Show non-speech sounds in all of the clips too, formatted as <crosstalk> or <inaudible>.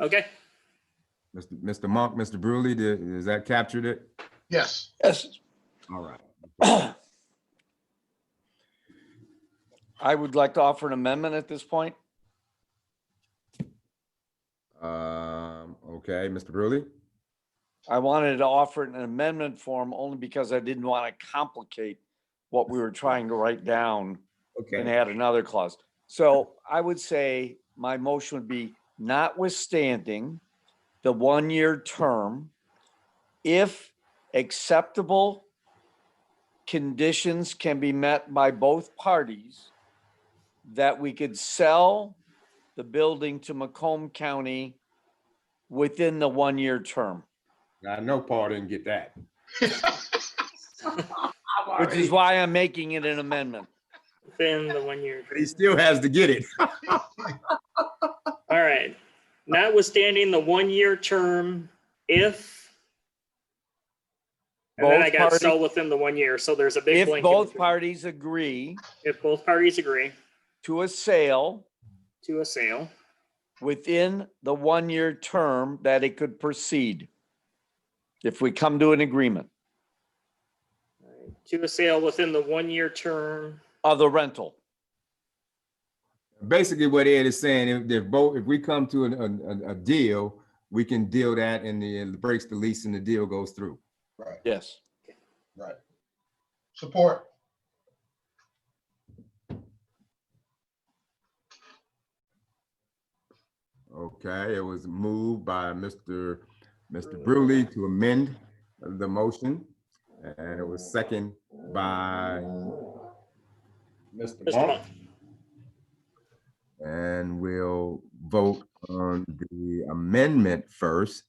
Okay, Mr. Mr. Monk, Mr. Brewley, did, is that captured it? Yes, Yes, All right. I would like to offer an amendment at this point. Um, okay, Mr. Brewley? I wanted to offer it in amendment form only because I didn't want to complicate what we were trying to write down and add another clause. So I would say my motion would be notwithstanding the one-year term, if acceptable conditions can be met by both parties, that we could sell the building to Macomb County within the one-year term. I know Paul didn't get that. Which is why I'm making it an amendment. within the one year. But he still has to get it. All right. Notwithstanding the one-year term, if. And then I Both got parties- so within the one year, so there's a big If blank. in both between. parties agree If both parties agree to a sale to a sale within the one-year term, that it could proceed. If we come to an agreement to a sale within the one-year term. of the rental, Basically what Ed is saying, if, if both, if we come to an, an- a, a deal, we can deal that and the, and breaks the lease and the deal goes through. right, yes. right. Support, Okay, it was moved by Mr. Mr. Brewley to amend the motion. And it was second by Mr. Mr. Monk. Monk, And we'll vote on the amendment first.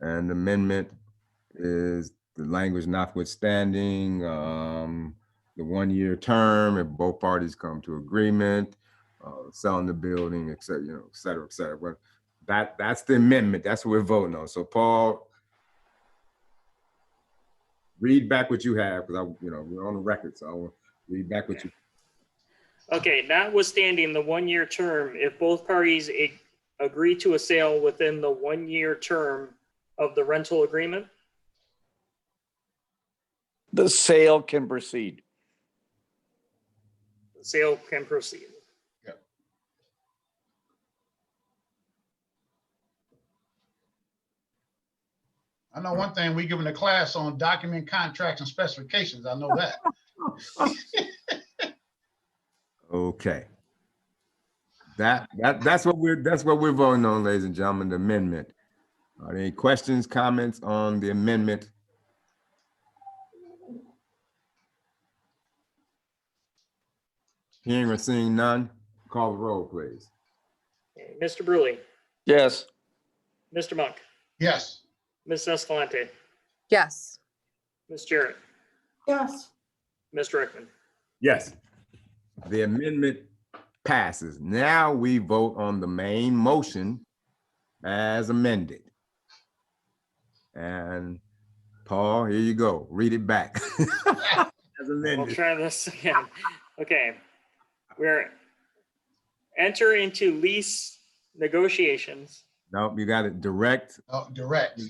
And the amendment is the language notwithstanding, um, the one-year term, if both parties come to agreement, uh, selling the building, et cetera, you know, et cetera, et cetera. But that, that's the amendment. That's what we're voting on. So Paul, read back what you have, because I, you know, we're on the record, so I'll read back what you, Okay, notwithstanding the one-year term, if both parties ag- agree to a sale within the one-year term of the rental agreement, The sale can proceed. the sale can proceed. I know one thing, we giving a class on document contracts and specifications, I know that. Okay. That, that, that's what we're, that's what we're voting on, ladies and gentlemen, the amendment. Are there any questions, comments on the amendment? Hearing or seeing none, call the roll, please. Okay, Mr. Brewley, Yes, Mr. Monk, Yes, Ms. Escalante, Yes. Ms. Jarrett, Yes. Mr. Rickman. Yes. The amendment passes. Now we vote on the main motion as amended. And Paul, here you go. Read it back. <laughs> As We'll amended. try this <laughs> again. Okay. We're enter into lease negotiations. No, you got it. Direct, Oh, direct,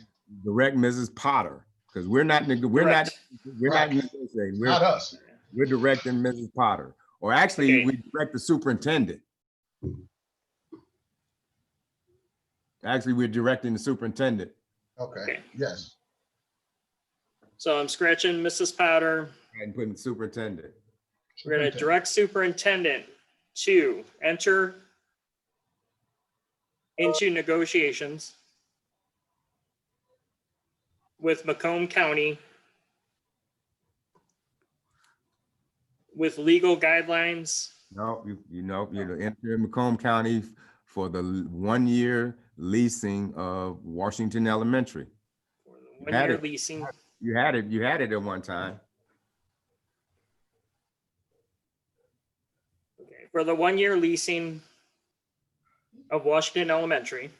direct Mrs. Potter, because we're not, neg- we're not, Correct. we're not Right. negotiating. not We're, us. we're directing Mrs. Potter. Or actually, Okay. we direct the superintendent. Actually, we're directing the superintendent. Okay, Okay. yes, So I'm scratching Mrs. Powder. And putting superintendent. We're gonna Superintendent. direct superintendent to enter into negotiations with Macomb County with legal guidelines. No, you, you know, you know, enter Macomb County for the l- one-year leasing of Washington Elementary. for the You had One-year it. leasing. You had it, you had it at one time. Okay, For the one-year leasing of Washington Elementary.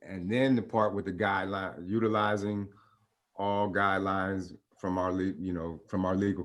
And then the part with the guideline, utilizing all guidelines from our, le- you know, from our legal